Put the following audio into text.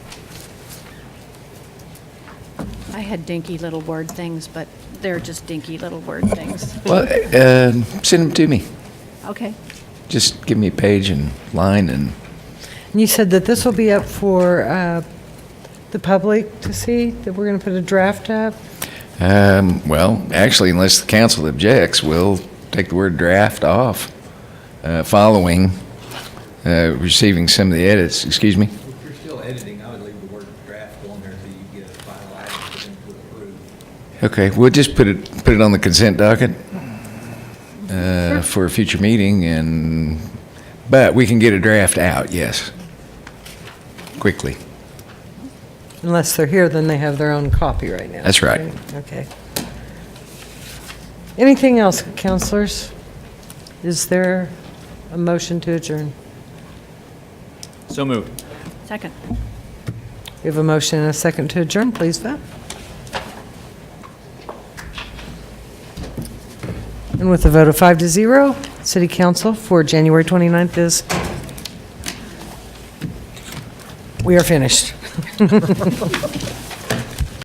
I had dinky little word things, but they're just dinky little word things. Well, uh, send them to me. Okay. Just give me a page and line and, And you said that this will be up for uh, the public to see, that we're going to put a draft up? um, well, actually, unless the council objects, we'll take the word draft off, uh, following, uh, receiving some of the edits, excuse me? If you're still editing, I would leave the word draft on there so you get a final item for them to approve. Okay, we'll just put it, put it on the consent docket uh, for a future meeting and, but we can get a draft out, yes. Quickly. Unless they're here, then they have their own copy right now. That's right. Okay. Anything else, counselors? Is there a motion to adjourn? So moved. Second. We have a motion and a second to adjourn, please vote. And with a vote of five to zero, City Council for January 29th is, we are finished.